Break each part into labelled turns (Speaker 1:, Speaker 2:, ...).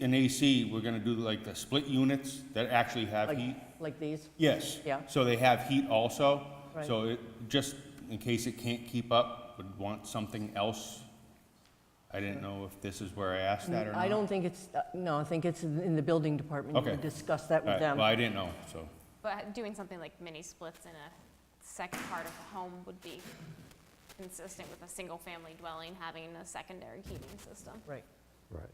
Speaker 1: in AC, we're gonna do like the split units that actually have
Speaker 2: Like,
Speaker 1: heat.
Speaker 2: like these?
Speaker 1: Yes.
Speaker 2: Yeah.
Speaker 1: So they have heat also.
Speaker 2: Right.
Speaker 1: So it, just in case it can't keep up, would want something else. I didn't know if this is where I asked that or not.
Speaker 2: I don't think it's, uh, no, I think it's in in the building department. You
Speaker 1: Okay.
Speaker 2: would discuss that
Speaker 1: All
Speaker 2: with
Speaker 1: right,
Speaker 2: them.
Speaker 1: Well, I didn't know, so.
Speaker 3: But doing something like mini splits in a second part of a home would be consistent with a single-family dwelling having a secondary heating system.
Speaker 2: Right,
Speaker 4: Right.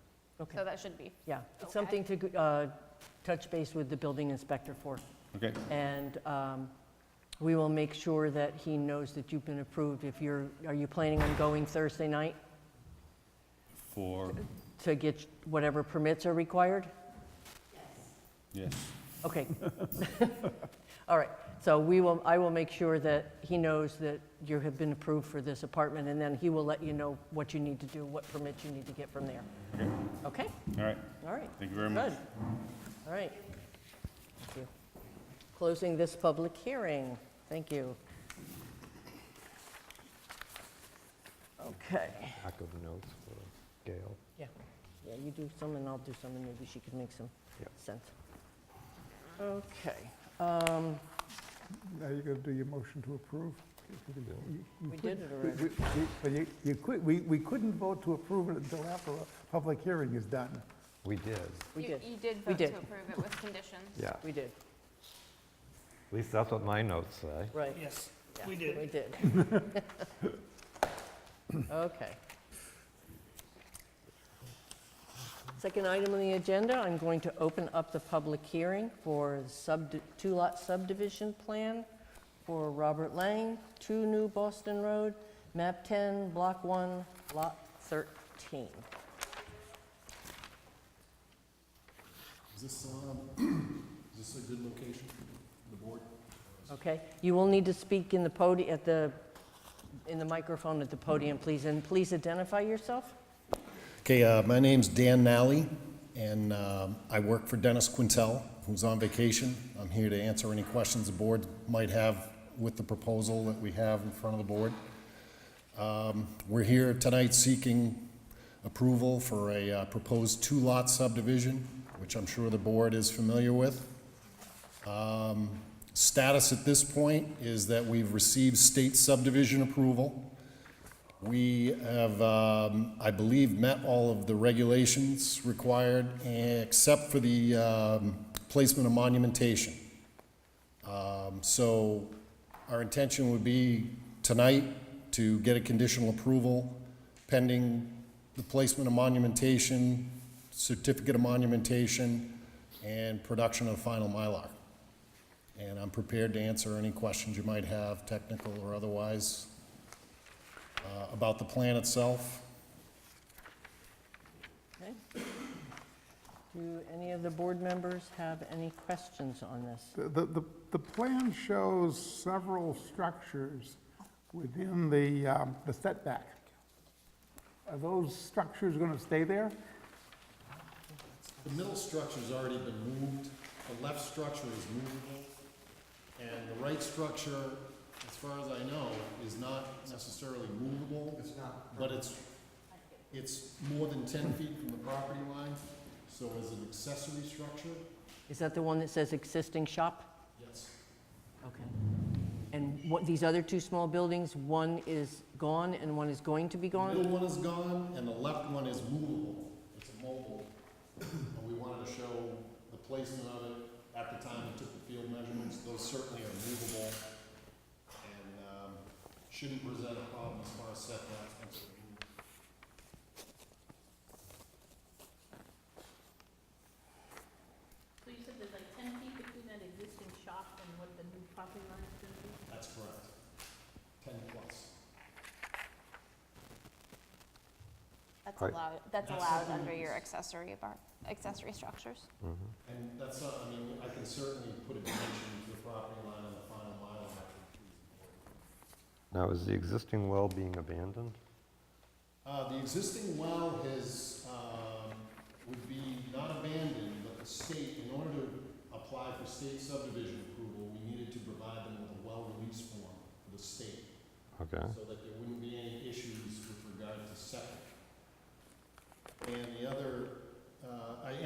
Speaker 2: okay,
Speaker 3: So that should be,
Speaker 2: yeah.
Speaker 3: Okay.
Speaker 2: It's something to uh, touch base with the building inspector for.
Speaker 1: Okay,
Speaker 2: And um, we will make sure that he knows that you've been approved. If you're, are you planning on going Thursday night
Speaker 1: for,
Speaker 2: to get whatever permits are required?
Speaker 1: yes.
Speaker 2: Okay. All right, so we will, I will make sure that he knows that you have been approved for this apartment, and then he will let you know what you need to do, what permits you need to get from there.
Speaker 1: Okay,
Speaker 2: Okay,
Speaker 1: all right,
Speaker 2: all right,
Speaker 1: thank you very much.
Speaker 2: good. All right. Thank you. Closing this public hearing. Thank you. Okay.
Speaker 4: Pack of notes for Gail.
Speaker 2: Yeah, yeah, you do some and I'll do some and maybe she could make some
Speaker 4: Yeah.
Speaker 2: sense. Okay, um,
Speaker 5: Now you're going to do your motion to approve? You- you
Speaker 2: we did
Speaker 5: couldn't-
Speaker 2: it already.
Speaker 5: we- we- But you, you could, we, we couldn't vote to approve it until after a public hearing is done.
Speaker 4: We did,
Speaker 2: We
Speaker 3: you
Speaker 2: did,
Speaker 3: you did
Speaker 2: We
Speaker 3: vote to
Speaker 2: did.
Speaker 3: approve it with conditions.
Speaker 4: yeah.
Speaker 2: we did,
Speaker 4: At least that's what my notes say.
Speaker 2: right.
Speaker 6: Yes,
Speaker 2: yeah,
Speaker 6: we did.
Speaker 2: We did. Okay. Second item on the agenda, I'm going to open up the public hearing for the subdi- two-lot subdivision plan for Robert Lang, 2 New Boston Road, map 10, block 1, lot 13.
Speaker 7: Is this, um, is this a good location for the board?
Speaker 2: Okay, you will need to speak in the podi, at the, in the microphone at the podium, please, and please identify yourself.
Speaker 7: Okay, uh, my name's Dan Nally, and um, I work for Dennis Quintel, who's on vacation. I'm here to answer any questions the board might have with the proposal that we have in front of the board. Um, We're here tonight seeking approval for a uh, proposed two-lot subdivision, which I'm sure the board is familiar with. Um, Status at this point is that we've received state subdivision approval. We have, um, I believe, met all of the regulations required, except for the um, placement of monumentation. Um, So our intention would be tonight to get a conditional approval pending the placement of monumentation, certificate of monumentation, and production of final Mylar. And I'm prepared to answer any questions you might have, technical or otherwise, uh, about the plan itself.
Speaker 2: Okay. Do any of the board members have any questions on this?
Speaker 5: The, the- the, the plan shows several structures within the, um, the setback. Are those structures going to stay there?
Speaker 7: The middle structure's already been moved, the left structure is movable, and the right structure, as far as I know, is not necessarily movable. It's not. But it's, it's more than ten feet from the property line, so as an accessory structure,
Speaker 2: Is that the one that says existing shop?
Speaker 7: yes.
Speaker 2: Okay. And what, these other two small buildings, one is gone and one is going to be
Speaker 7: The middle
Speaker 2: gone?
Speaker 7: one is gone, and the left one is movable, it's a mobile. And we wanted to show the placement of it at the time we took the field measurements, those certainly are movable. And, um, shouldn't present a problem as far as setbacks and so on.
Speaker 8: So you said there's like ten feet between that existing shop and what the new property line is gonna be?
Speaker 7: That's correct. Ten plus.
Speaker 3: That's
Speaker 4: Right.
Speaker 3: allowed, that's
Speaker 7: That's
Speaker 3: allowed
Speaker 7: something
Speaker 3: under
Speaker 7: that's-
Speaker 3: your accessory apart, accessory structures.
Speaker 7: And that's not, I mean, I can certainly put a dimension to the property line on the final mile. if I choose.
Speaker 4: Now, is the existing well being abandoned?
Speaker 7: Uh, the existing well has, um, would be not abandoned, but the state, in order to apply for state subdivision approval, we needed to provide them with a well release form for the state,
Speaker 4: Okay,
Speaker 7: so that there wouldn't be any issues with regard to septic. And the other uh, I